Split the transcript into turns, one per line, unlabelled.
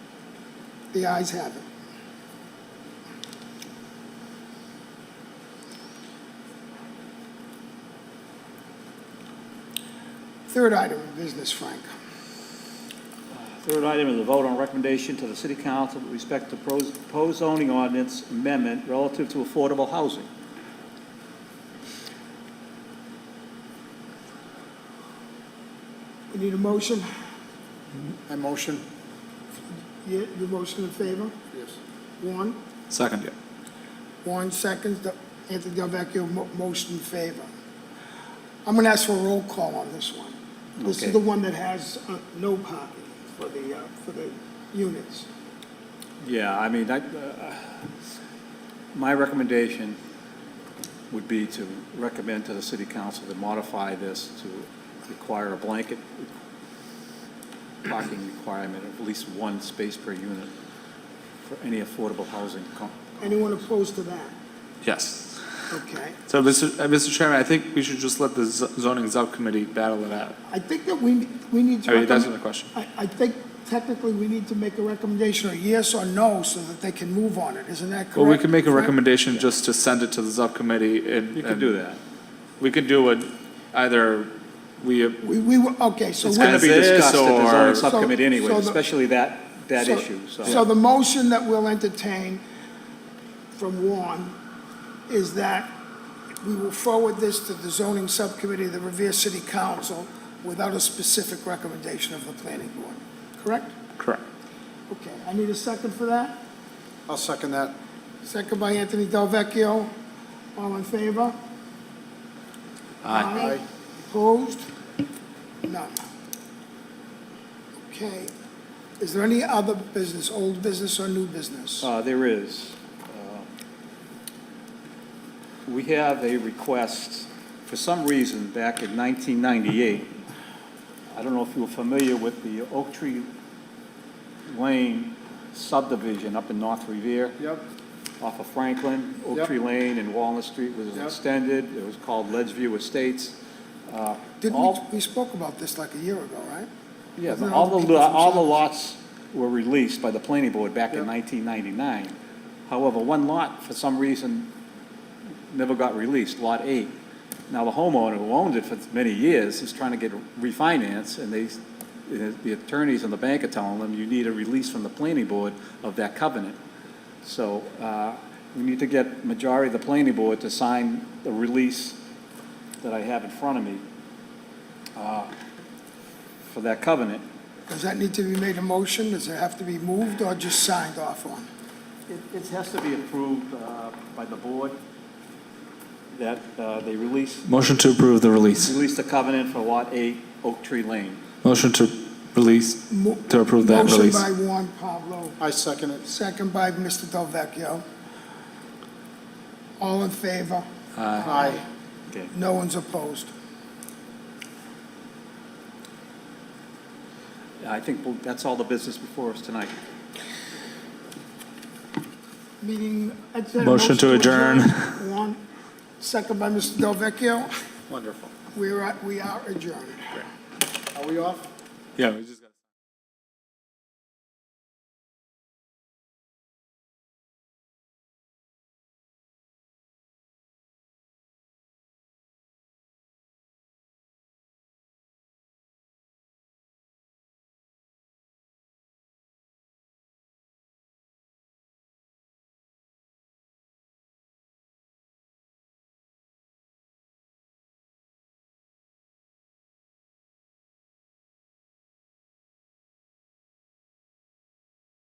The ayes have it. Third item of business, Frank.
Third item is a vote on recommendation to the city council with respect to pros- proposed zoning ordinance amendment relative to affordable housing.
We need a motion.
I motion.
You, you motion in favor?
Yes.
One.
Second, yeah.
Warren seconds, Del- Anthony Delvecchio, mo- motion in favor. I'm going to ask for a roll call on this one. This
Okay.
is the one that has uh, no parking for the, uh, for the units.
Yeah, I mean, I, uh, my recommendation would be to recommend to the city council to modify this to require a blanket parking requirement of at least one space per unit for any affordable housing com-
Anyone opposed to that?
Yes.
Okay.
So, Mr. uh, Mr. Chairman, I think we should just let the z- zoning subcommittee battle it out.
I think that we, we need to.
I mean, that's
recommend-
the question.
I, I think technically we need to make a recommendation, or yes or no, so that they can move on it. Isn't that correct?
Well, we can make a
Frank?
recommendation just to send it to the subcommittee and.
You can
and
do that.
We could do it either, we,
We, we, were- okay, so.
It's
we-
going to be
As is,
discussed at the
or-
zoning
So-
subcommittee anyway,
so the-
especially that, that issue,
So the motion that we'll entertain from Warren is that we will forward this to the zoning subcommittee of the Revere City Council without a specific recommendation of the planning board, correct?
correct.
Okay, I need a second for that?
I'll second that.
Second by Anthony Delvecchio. All in favor? Aye. Opposed? None. Okay. Is there any other business, old business or new business?
Uh, There is. Uh, We have a request, for some reason, back in 1998, I don't know if you were familiar with the Oak Tree Lane subdivision up in North Revere,
Yep,
off of Franklin, Oak
Yep.
Tree Lane and Walnut Street was
Yep.
extended, it was called Ledgeview Estates. Uh,
Didn't we,
all-
we spoke about this like a year ago, right?
Yeah,
Wasn't it
all the,
people from
all the
South-
lots were released by the planning board back in
Yep.
1999. However, one lot, for some reason, never got released, Lot 8. Now, the homeowner who owned it for many years is trying to get refinance, and they, the attorneys and the bank are telling them, you need a release from the planning board of that covenant. So uh, we need to get majority of the planning board to sign the release that I have in front of me uh, for that covenant.
Does that need to be made a motion? Does it have to be moved or just signed off on?
It, it has to be approved uh, by the board that uh, they release,
Motion to approve the release.
release the covenant for Lot 8, Oak Tree Lane.
Motion to release,
Mo-
to approve that release.
Motion by Juan Pablo,
I second it.
second by Mr. Delvecchio. All in favor?
Aye.
Okay.
No one's opposed.
I think we'll- that's all the business before us tonight.
Meeting. I'd say a
Motion to adjourn.
Juan, second by Mr. Delvecchio.
Wonderful.
We are, we are adjourned.
Are we off?
Yeah, we just.